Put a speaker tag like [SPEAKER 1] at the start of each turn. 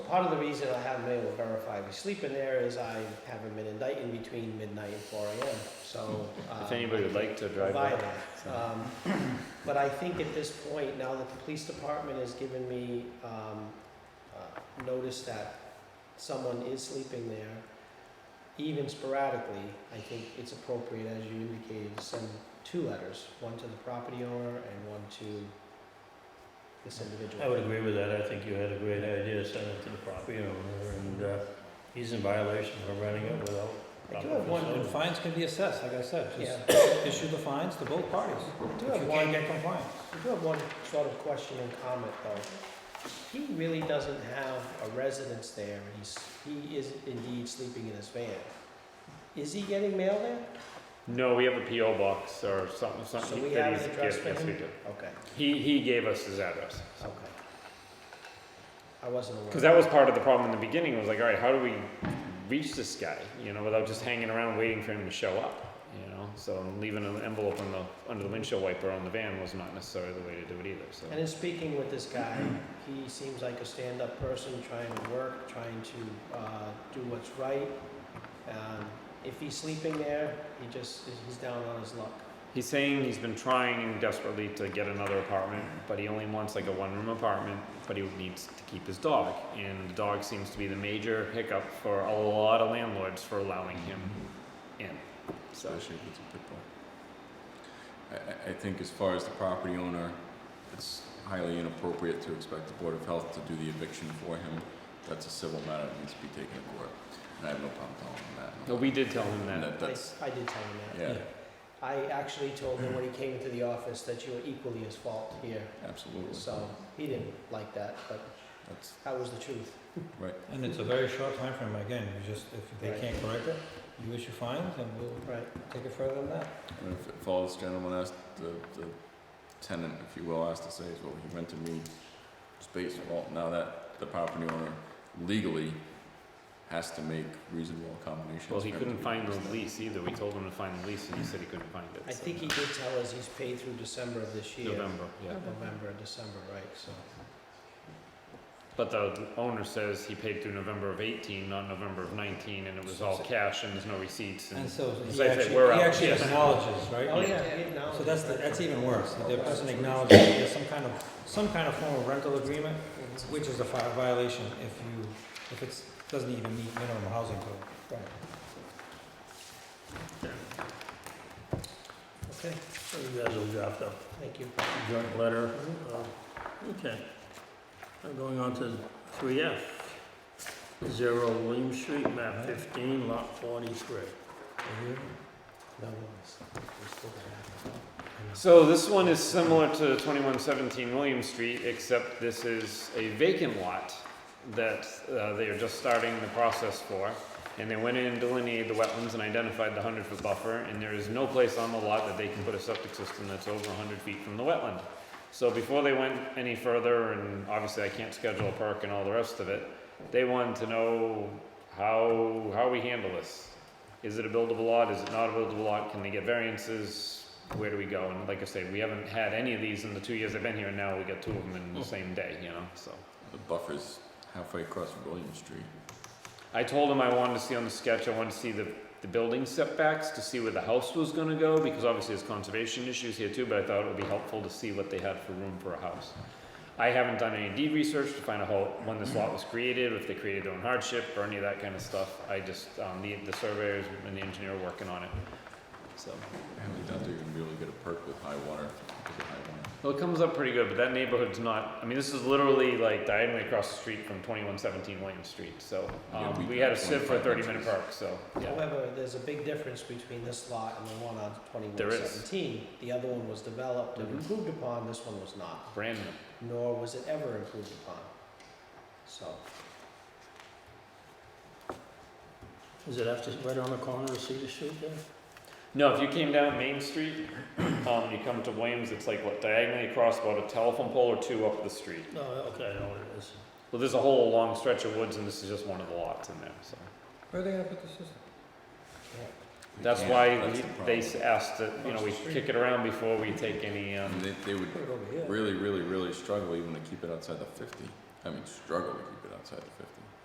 [SPEAKER 1] Part of the reason I haven't been able to verify we sleep in there is I haven't been indicting between midnight and four AM, so.
[SPEAKER 2] If
[SPEAKER 1] um,
[SPEAKER 2] anybody would like to drive
[SPEAKER 1] provide
[SPEAKER 2] up.
[SPEAKER 1] that. Um, But I think at this point, now that the police department has given me um, uh, notice that someone is sleeping there, even sporadically, I think it's appropriate, as you indicated, to send two letters, one to the property owner and one to this individual.
[SPEAKER 3] I would agree with that, I think you had a great idea, send it to the property owner, and, uh, he's in violation for running it without.
[SPEAKER 1] I do have one-
[SPEAKER 3] proper
[SPEAKER 4] And
[SPEAKER 3] facility.
[SPEAKER 4] fines can be assessed, like I said,
[SPEAKER 1] Yeah.
[SPEAKER 4] just issue the fines to both parties.
[SPEAKER 1] I do
[SPEAKER 4] If
[SPEAKER 1] have
[SPEAKER 4] you
[SPEAKER 1] one-
[SPEAKER 4] can't get compliance.
[SPEAKER 1] I do have one sort of question and comment though. He really doesn't have a residence there, and he's, he is indeed sleeping in his van. Is he getting mail there?
[SPEAKER 2] No, we have a PO box or something,
[SPEAKER 1] So
[SPEAKER 2] something
[SPEAKER 1] we
[SPEAKER 2] that
[SPEAKER 1] have
[SPEAKER 2] he's,
[SPEAKER 1] an address
[SPEAKER 2] yes,
[SPEAKER 1] for
[SPEAKER 2] yes, we
[SPEAKER 1] him?
[SPEAKER 2] do.
[SPEAKER 1] Okay,
[SPEAKER 2] He, he gave us his address.
[SPEAKER 1] okay. I wasn't aware.
[SPEAKER 2] Because that was part of the problem in the beginning, was like, all right, how do we reach this guy, you know, without just hanging around waiting for him to show up, you know? So leaving an envelope on the, under the windshield wiper on the van was not necessarily the way to do it either, so.
[SPEAKER 1] And in speaking with this guy, he seems like a stand-up person, trying to work, trying to, uh, do what's right. Um, if he's sleeping there, he just, he's down on his luck.
[SPEAKER 2] He's saying he's been trying desperately to get another apartment, but he only wants like a one room apartment, but he needs to keep his dog. And the dog seems to be the major hiccup for a lot of landlords for allowing him in. So,
[SPEAKER 5] Especially if it's a pit bull. I, I, I think as far as the property owner, it's highly inappropriate to expect the Board of Health to do the eviction for him. That's a civil matter that needs to be taken to court, and I have no problem telling him that.
[SPEAKER 2] no, we did tell him
[SPEAKER 5] And
[SPEAKER 2] that.
[SPEAKER 5] that, that's,
[SPEAKER 1] I I did tell him that.
[SPEAKER 5] yeah,
[SPEAKER 1] I actually told him when he came into the office that you were equally as fault here,
[SPEAKER 5] absolutely.
[SPEAKER 1] so he didn't like that, but
[SPEAKER 5] That's,
[SPEAKER 1] that was the truth.
[SPEAKER 4] And it's a very short time frame. again, you just, if they
[SPEAKER 1] Right.
[SPEAKER 4] can't correct it, you issue fines and we'll
[SPEAKER 1] Right.
[SPEAKER 4] take it further than that.
[SPEAKER 5] I mean, if if all this gentleman asked, the, the tenant, if you will, asked to say is, well, he rented me space, well, now that the property owner legally has to make reasonable accommodations.
[SPEAKER 2] Well, he
[SPEAKER 5] for him to
[SPEAKER 2] couldn't
[SPEAKER 5] be
[SPEAKER 2] find
[SPEAKER 5] able to
[SPEAKER 2] the
[SPEAKER 5] do that.
[SPEAKER 2] lease either. We told him to find the lease and he said he couldn't find it.
[SPEAKER 1] I
[SPEAKER 2] so-
[SPEAKER 1] think he did tell us he's paid through December of this year.
[SPEAKER 2] November, yeah.
[SPEAKER 1] November, December, right, so.
[SPEAKER 2] But the owner says he paid through November of 18, not November of 19, and it was all cash and there's no receipts.
[SPEAKER 4] And
[SPEAKER 2] And
[SPEAKER 4] so
[SPEAKER 2] As
[SPEAKER 4] he
[SPEAKER 2] I said,
[SPEAKER 4] actually,
[SPEAKER 2] we're
[SPEAKER 4] he
[SPEAKER 2] out.
[SPEAKER 4] actually
[SPEAKER 2] Yes.
[SPEAKER 4] acknowledges, right?
[SPEAKER 1] Oh, yeah, he acknowledged.
[SPEAKER 4] So that's, the- that's even worse,
[SPEAKER 3] Oh,
[SPEAKER 4] that the person acknowledges that there's some kind of, some kind of form of rental agreement, which is a fi- violation if you, if it's, doesn't even meet minimum housing code.
[SPEAKER 1] Okay,
[SPEAKER 3] So You guys will draft up
[SPEAKER 1] thank you.
[SPEAKER 3] a joint letter, uh, okay. I'm going on to three F, zero William Street, map fifteen, lot forty-three.
[SPEAKER 1] No one's- we're still gonna have to-
[SPEAKER 2] So this one is similar to 2117 William Street, except this is a vacant lot that uh, they are just starting the process for. And they went in and delineated the wetlands and identified the 100-foot buffer, and there is no place on the lot that they can put a septic system that's over 100 feet from the wetland. So before they went any further, and obviously I can't schedule a perk and all the rest of it, they wanted to know how, how we handle this. Is it a buildable lot? Is it not a buildable lot? Can they get variances? where do we go? And like I say, we haven't had any of these in the two years I've been here, and now we got two of them in the same day, you know, so.
[SPEAKER 5] The buffer's halfway across William Street.
[SPEAKER 2] I told him I wanted to see on the sketch, I wanted to see the, the building setbacks to see where the house was gonna go, because obviously there's conservation issues here too, but I thought it would be helpful to see what they had for room for a house. I haven't done any deed research to find out how, when this lot was created, if they created their own hardship, or any of that kind of stuff. I just, um, the, the surveyors and the engineer are working on it, so.
[SPEAKER 5] I highly doubt they're gonna be able to get a perk with high water, because of high water.
[SPEAKER 2] Well, it comes up pretty good, but that neighborhood's not. I mean, this is literally like diagonally across the street from 2117 William Street. So um,
[SPEAKER 5] Yeah, we
[SPEAKER 2] we
[SPEAKER 5] got
[SPEAKER 2] had a sieve for a
[SPEAKER 5] 25
[SPEAKER 2] 30-minute
[SPEAKER 5] inches.
[SPEAKER 2] park. So yeah,
[SPEAKER 1] However, there's a big difference between this lot and the one on
[SPEAKER 2] There
[SPEAKER 1] twenty-one
[SPEAKER 2] is.
[SPEAKER 1] seventeen. The other one was developed and
[SPEAKER 3] Mm-hmm.
[SPEAKER 2] Mhm.
[SPEAKER 1] improved upon, this one was not,
[SPEAKER 2] brand new.
[SPEAKER 1] nor was it ever improved upon. So,
[SPEAKER 3] Is it after, right on the corner of Cedar Street there?
[SPEAKER 2] No, if you came down Main Street, um, you come to Williams. It's like what diagonally across about a telephone pole or two up the street.
[SPEAKER 3] No, okay, I know what it is.
[SPEAKER 2] Well, there's a whole long stretch of woods, and this is just one of the lots in there. So
[SPEAKER 4] Where are they gonna put the system?
[SPEAKER 5] They
[SPEAKER 2] that's
[SPEAKER 5] can't.
[SPEAKER 2] why
[SPEAKER 5] That's
[SPEAKER 2] we,
[SPEAKER 5] the
[SPEAKER 2] they
[SPEAKER 5] problem.
[SPEAKER 2] s- asked that you know we kick it around before we take any. Um,
[SPEAKER 5] And they, they would
[SPEAKER 4] Put it over here.
[SPEAKER 5] really, really, really struggle even to keep it outside the fifty. I mean, struggle to keep it outside the fifty.